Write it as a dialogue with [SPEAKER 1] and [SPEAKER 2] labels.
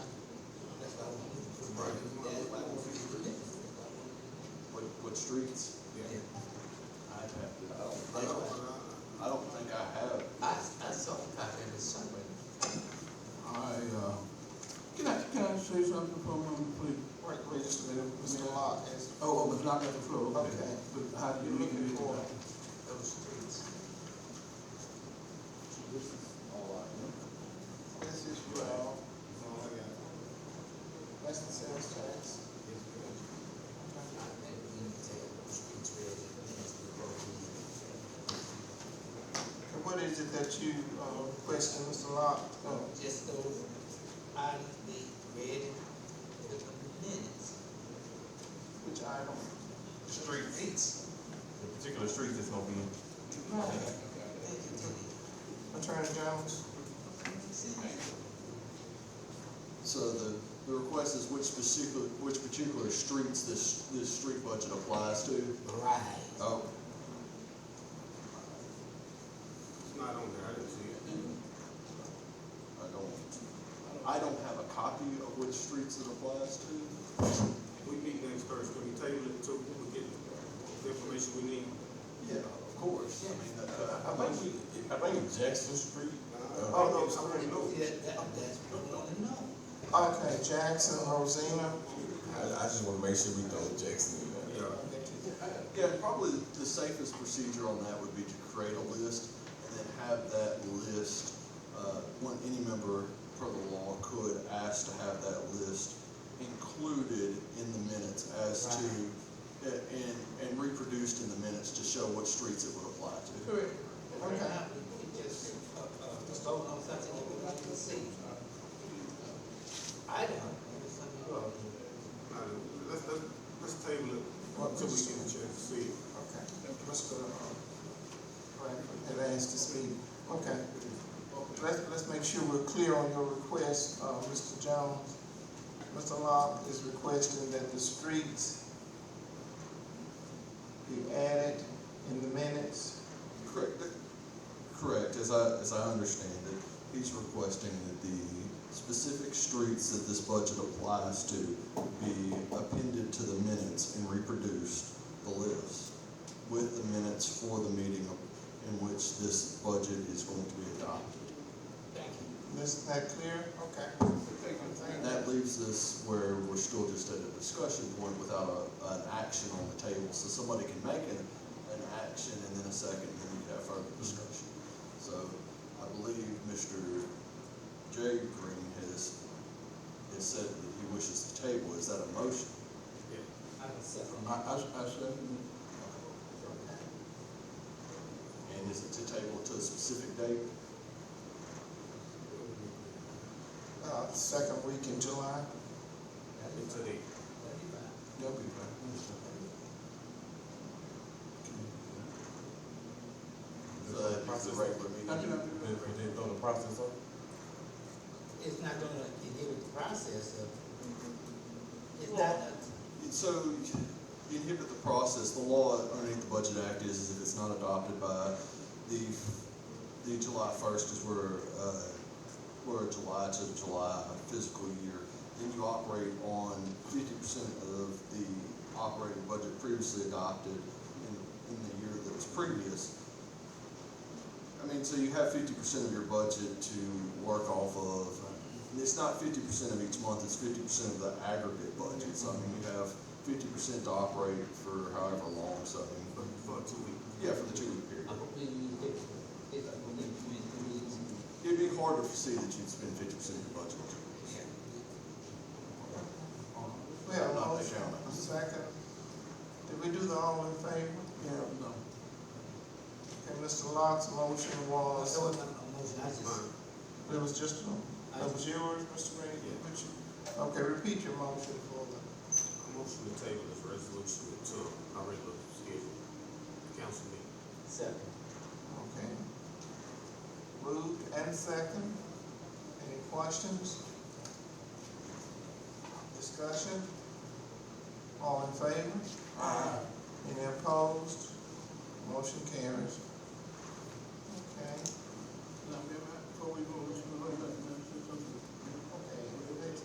[SPEAKER 1] streets.
[SPEAKER 2] Yeah.
[SPEAKER 1] I'd have to,
[SPEAKER 3] I don't
[SPEAKER 1] I
[SPEAKER 3] think
[SPEAKER 1] don't,
[SPEAKER 3] I-
[SPEAKER 1] I don't think I have.
[SPEAKER 3] uh, I, I saw it back there somewhere.
[SPEAKER 2] I, uh, can I, can I say something for a moment, please?
[SPEAKER 4] Wait, wait just a minute, Mr. Locke has,
[SPEAKER 2] Oh, oh, it's not at the floor, okay.
[SPEAKER 4] Okay.
[SPEAKER 2] But how do you
[SPEAKER 4] you're
[SPEAKER 2] look
[SPEAKER 4] looking for,
[SPEAKER 2] at it?
[SPEAKER 3] those streets.
[SPEAKER 1] This is all I
[SPEAKER 4] this is your, all I got. That's the sales tax.
[SPEAKER 3] I think we need to take those streets where the things that go in.
[SPEAKER 4] And what is it that you, uh, question, Mr. Locke? Oh,
[SPEAKER 3] Um, Just those items they read within the minutes.
[SPEAKER 4] Which item?
[SPEAKER 3] Streets.
[SPEAKER 5] The particular streets that's gonna be in.
[SPEAKER 3] Thank you, Tony.
[SPEAKER 4] Attorney Jones?
[SPEAKER 1] So the, the request is which specific, which particular streets this, this street budget applies to?
[SPEAKER 3] Right.
[SPEAKER 1] Oh,
[SPEAKER 6] It's not on there, I didn't see it.
[SPEAKER 1] I don't, I don't have a copy of which streets it applies to.
[SPEAKER 6] We meet next Thursday, we table it until we get the information we need.
[SPEAKER 1] Yeah, of course, I mean, uh,
[SPEAKER 5] I think, we- I think Jackson Street,
[SPEAKER 4] Oh, no,
[SPEAKER 6] I already know.
[SPEAKER 3] Yeah, that, that's what I wanna know.
[SPEAKER 4] Okay, Jackson, Rosina.
[SPEAKER 5] I, I just wanna make sure we know Jackson. in there.
[SPEAKER 6] Yeah.
[SPEAKER 1] Yeah, probably the safest procedure on that would be to create a list and then have that list, uh, when any member per the law could ask to have that list included in the minutes as to, uh, and, and reproduced in the minutes to show what streets it would apply to.
[SPEAKER 3] Correct. Right now, we can just, uh, uh, just vote on something that we like to see. I don't, know something wrong.
[SPEAKER 6] I don't- Let's, let's, let's table it until we get a chance to see it.
[SPEAKER 4] Okay. uh, Mr. Bradford had asked this meeting. Okay. Let's, let's make sure we're clear on your request, uh, Mr. Jones. Mr. Locke is requesting that the streets be added in the minutes.
[SPEAKER 1] Correct, correct, as I, as I understand it, he's requesting that the specific streets that this budget applies to be appended to the minutes and reproduced, the list, with the minutes for the meeting in which this budget is going to be adopted.
[SPEAKER 3] Thank you.
[SPEAKER 4] Is that clear? Okay.
[SPEAKER 1] And that leaves us where we're still just at a discussion point without a, an action on the table, so somebody can make an, an action and then a second, and then you have further discussion. So I believe Mr. Jay Green has, has said that he wishes to table, is that a motion?
[SPEAKER 3] I don't second.
[SPEAKER 2] I, I, I second
[SPEAKER 1] And is it to table to a specific date?
[SPEAKER 4] Uh, second week in July.
[SPEAKER 6] It's today.
[SPEAKER 2] That'll be fine.
[SPEAKER 1] So that'd
[SPEAKER 5] uh,
[SPEAKER 1] be the regular meeting?
[SPEAKER 2] Not gonna-
[SPEAKER 5] But but they throw the process up.
[SPEAKER 3] It's not gonna deal with the process of, it's not, a-
[SPEAKER 1] So you inhibit the process, the law underneath the Budget Act is, is if it's not adopted by the, the July first is where, uh, where July to the July fiscal year, then you operate on fifty percent of the operating budget previously adopted in, in the year that was previous. I mean, so you have fifty percent of your budget to work off of. And It's not fifty percent of each month, it's fifty percent of the aggregate budget, so I mean, you have fifty percent to operate for however long, so I mean,
[SPEAKER 6] For, for two weeks.
[SPEAKER 1] yeah, for the two-week period.
[SPEAKER 3] I'm completely different. It's a completely different reason.
[SPEAKER 1] It'd be hard to foresee that you'd spend fifty percent of your budget on two weeks.
[SPEAKER 4] We have a
[SPEAKER 1] Not
[SPEAKER 4] motion.
[SPEAKER 1] that counting.
[SPEAKER 4] Second. Did we do the all in favor?
[SPEAKER 2] Yeah, no.
[SPEAKER 4] Okay, Mr. Locke's motion
[SPEAKER 3] Oh,
[SPEAKER 4] was.
[SPEAKER 3] so it's not a motion, I just,
[SPEAKER 4] It
[SPEAKER 6] Mine.
[SPEAKER 4] was just, that was yours, Mr. Green?
[SPEAKER 6] Yeah.
[SPEAKER 4] Which- Okay, repeat your motion for the,
[SPEAKER 6] I'm motion to table this resolution until our regular schedule, council meeting.
[SPEAKER 3] second.
[SPEAKER 4] okay. Moved and second. Any questions? Discussion? All in favor? Aye. Any opposed? Motion carries. Okay.
[SPEAKER 2] Now, may I- before we go, Mr.